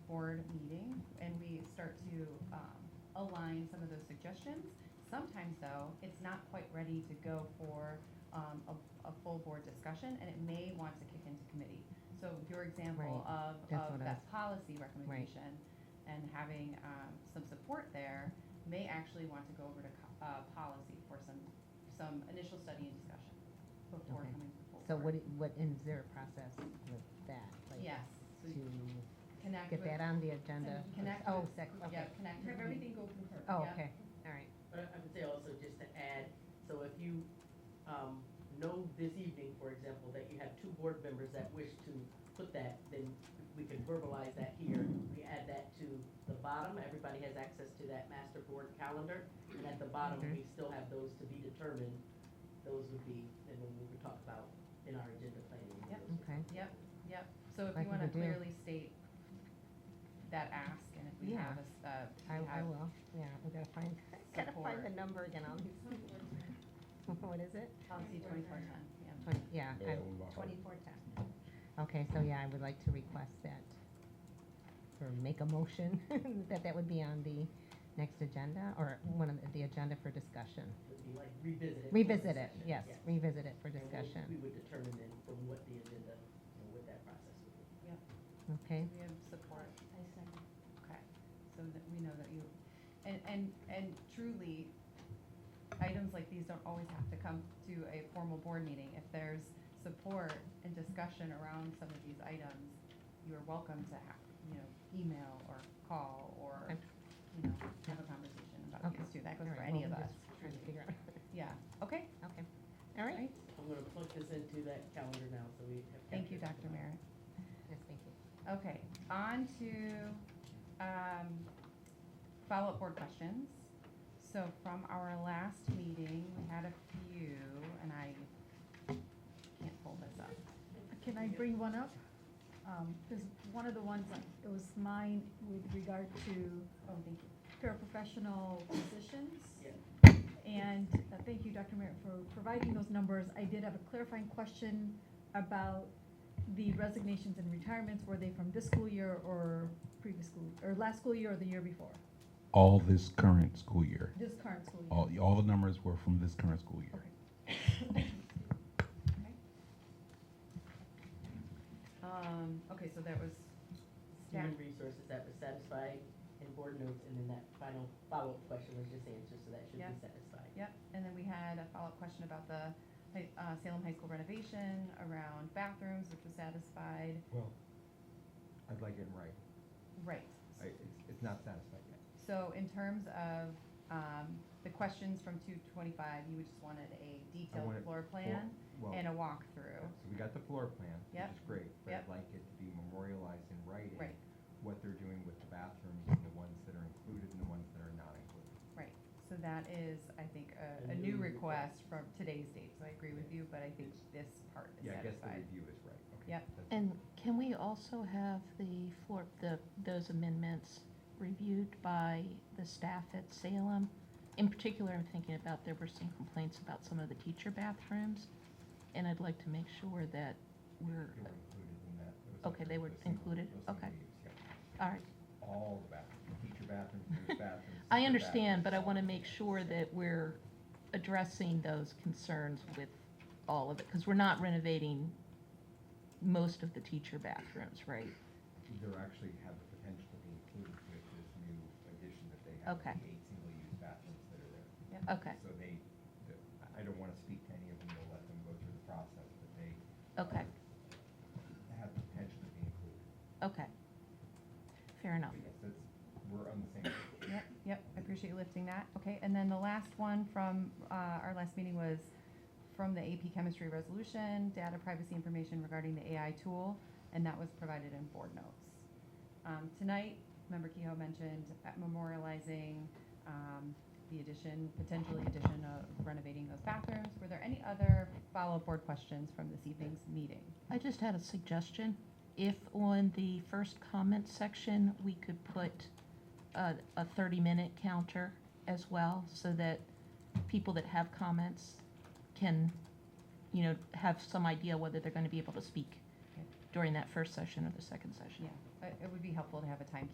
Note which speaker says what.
Speaker 1: board meeting and we start to um, align some of those suggestions. Sometimes though, it's not quite ready to go for um, a, a full board discussion and it may want to kick into committee. So your example of,
Speaker 2: that's
Speaker 1: of
Speaker 2: what I
Speaker 1: that policy recommendation and having um, some support there may actually want to go over to co- uh, policy for some, some initial study and discussion before
Speaker 2: Okay.
Speaker 1: coming to the full
Speaker 2: So
Speaker 1: board.
Speaker 2: what, i- what, and is there a process with that? like,
Speaker 1: Yes, so
Speaker 2: To
Speaker 1: connect
Speaker 2: get
Speaker 1: with-
Speaker 2: that on the agenda?
Speaker 1: Connect
Speaker 2: Oh,
Speaker 1: with-
Speaker 2: sec,
Speaker 1: Yeah,
Speaker 2: okay.
Speaker 1: connect.
Speaker 3: Have
Speaker 1: with me.
Speaker 3: everything go concurrent.
Speaker 2: Oh,
Speaker 1: yeah.
Speaker 2: okay, all right.
Speaker 4: But Uh, I would say also just to add, so if you um, know this evening, for example, that you have two board members that wish to put that, then we can verbalize that here. We add that to the bottom, everybody has access to that master board calendar. And at the bottom, we still have those to be determined. Those would be, and then we would talk about in our agenda planning.
Speaker 1: Yep.
Speaker 2: Okay.
Speaker 1: Yep, yep. So if
Speaker 2: I think
Speaker 1: you want to
Speaker 2: we do.
Speaker 1: clearly state that ask and if we
Speaker 2: Yeah.
Speaker 1: have a, s- uh, if
Speaker 2: I,
Speaker 1: we
Speaker 2: I
Speaker 1: have
Speaker 2: will, yeah, I gotta find, gotta find the
Speaker 1: Support.
Speaker 2: number again, I'll, what is it?
Speaker 1: policy twenty-four ten, yeah.
Speaker 2: Twenty, yeah,
Speaker 1: Oh,
Speaker 5: Yeah,
Speaker 2: I-
Speaker 5: one by heart.
Speaker 2: twenty-four ten. Okay, so yeah, I would like to request that, or make a motion, that that would be on the next agenda, or one of the- the agenda for discussion.
Speaker 4: Would be like revisit it.
Speaker 2: Revisit it,
Speaker 4: Session,
Speaker 2: yes,
Speaker 4: yeah.
Speaker 2: revisit it for
Speaker 4: And we- We
Speaker 2: discussion,
Speaker 4: would determine then from what the agenda, you know, what that process would be.
Speaker 2: okay?
Speaker 1: We have support. I second. Okay, so that we know that you, and, and, and truly, items like these don't always have to come to a formal board meeting. If there's support and discussion around some of these items, you're welcome to have, you know, email or call or,
Speaker 2: Okay.
Speaker 1: you know, have a conversation about
Speaker 2: Okay.
Speaker 1: these too. That goes
Speaker 2: All
Speaker 1: for
Speaker 2: right,
Speaker 1: any
Speaker 2: well, I'm
Speaker 1: of us.
Speaker 2: just Trying to figure out,
Speaker 1: Yeah, okay,
Speaker 2: okay, all right,
Speaker 4: I'm gonna plug this into that calendar now, so we have.
Speaker 1: thank you,
Speaker 4: captured
Speaker 1: Dr.
Speaker 4: it.
Speaker 1: Merritt.
Speaker 2: yes, thank you.
Speaker 1: Okay, on to um, follow-up board questions. So from our last meeting, we had a few, and I can't pull this up.
Speaker 6: Can I bring one up? Um, There's one of the ones, that- it was mine with regard to
Speaker 1: Oh, thank you.
Speaker 6: paraprofessional positions.
Speaker 4: Yeah.
Speaker 6: And uh, thank you, Dr. Merritt, for providing those numbers. I did have a clarifying question about the resignations and retirements. Were they from this school year or previous school, or last school year or the year before?
Speaker 5: all this current school year.
Speaker 6: This current school year?
Speaker 5: All, all the numbers were from this current school year.
Speaker 1: Um, Okay, so that was staff.
Speaker 4: Human resources, that was satisfied in board notes, and then that final follow-up question was just answered, so that should
Speaker 1: Yeah.
Speaker 4: be satisfied.
Speaker 1: Yep, and then we had a follow-up question about the hi- uh, Salem High School renovation around bathrooms, which was satisfied.
Speaker 7: Well, I'd like it in writing.
Speaker 1: Right.
Speaker 7: I, it's, it's not satisfied yet.
Speaker 1: So in terms of um, the questions from 225, you just wanted a detailed
Speaker 7: wanted
Speaker 1: floor
Speaker 7: Well,
Speaker 1: plan
Speaker 7: Well,
Speaker 1: and a walkthrough.
Speaker 7: so we got the floor plan, which
Speaker 1: Yep.
Speaker 7: is great, but
Speaker 1: Yep.
Speaker 7: I'd like it to be memorialized in writing.
Speaker 1: Right.
Speaker 7: What they're doing with the bathrooms and the ones that are included and the ones that are not included.
Speaker 1: Right, so that is, I think, a,
Speaker 4: A
Speaker 1: a new
Speaker 4: new
Speaker 1: request from today's date, so I agree with you, but I think this part is
Speaker 7: Yeah, I guess the
Speaker 1: satisfied.
Speaker 7: review is right, okay.
Speaker 1: Yep.
Speaker 7: that's-
Speaker 8: And can we also have the, for the, those amendments reviewed by the staff at Salem? In particular, I'm thinking about, there were some complaints about some of the teacher bathrooms, and I'd like to make sure that we're,
Speaker 7: They were included in that. It was
Speaker 8: Okay,
Speaker 7: under
Speaker 8: they were
Speaker 7: the single-
Speaker 8: included,
Speaker 7: those single
Speaker 8: okay.
Speaker 7: use, yep.
Speaker 8: all right.
Speaker 7: All the bathrooms, teacher bathrooms, nurse bathrooms.
Speaker 8: I
Speaker 7: sister
Speaker 8: understand, but I
Speaker 7: bathrooms,
Speaker 8: want to
Speaker 7: all
Speaker 8: make
Speaker 7: that.
Speaker 8: sure that we're addressing those concerns with all of it, because we're not renovating most of the teacher bathrooms, right?
Speaker 7: They're actually have the potential to be included with this new addition that they have.
Speaker 8: Okay.
Speaker 7: the Eight single-use bathrooms that are there.
Speaker 8: Okay,
Speaker 7: So they, the- I- I don't want to speak to any of them, we'll let them go through the process, but they
Speaker 8: okay,
Speaker 7: have the potential to be included.
Speaker 8: okay. Fair enough.
Speaker 7: But yes, that's, we're on the same page.
Speaker 1: Yep, yep, I appreciate you lifting that. Okay, and then the last one from, uh, our last meeting was from the AP chemistry resolution, data privacy information regarding the AI tool, and that was provided in board notes. Um, tonight, member Kehoe mentioned uh, memorializing, um, the addition, potentially addition of renovating those bathrooms. Were there any other follow-up board questions from this evening's meeting?
Speaker 8: I just had a suggestion. If on the first comment section, we could put a, a thirty-minute counter as well, so that people that have comments can, you know, have some idea whether they're gonna be able to speak
Speaker 1: Okay.
Speaker 8: during that first session or the second
Speaker 1: Yeah,
Speaker 8: session.
Speaker 1: it it would be helpful to have a timekeeper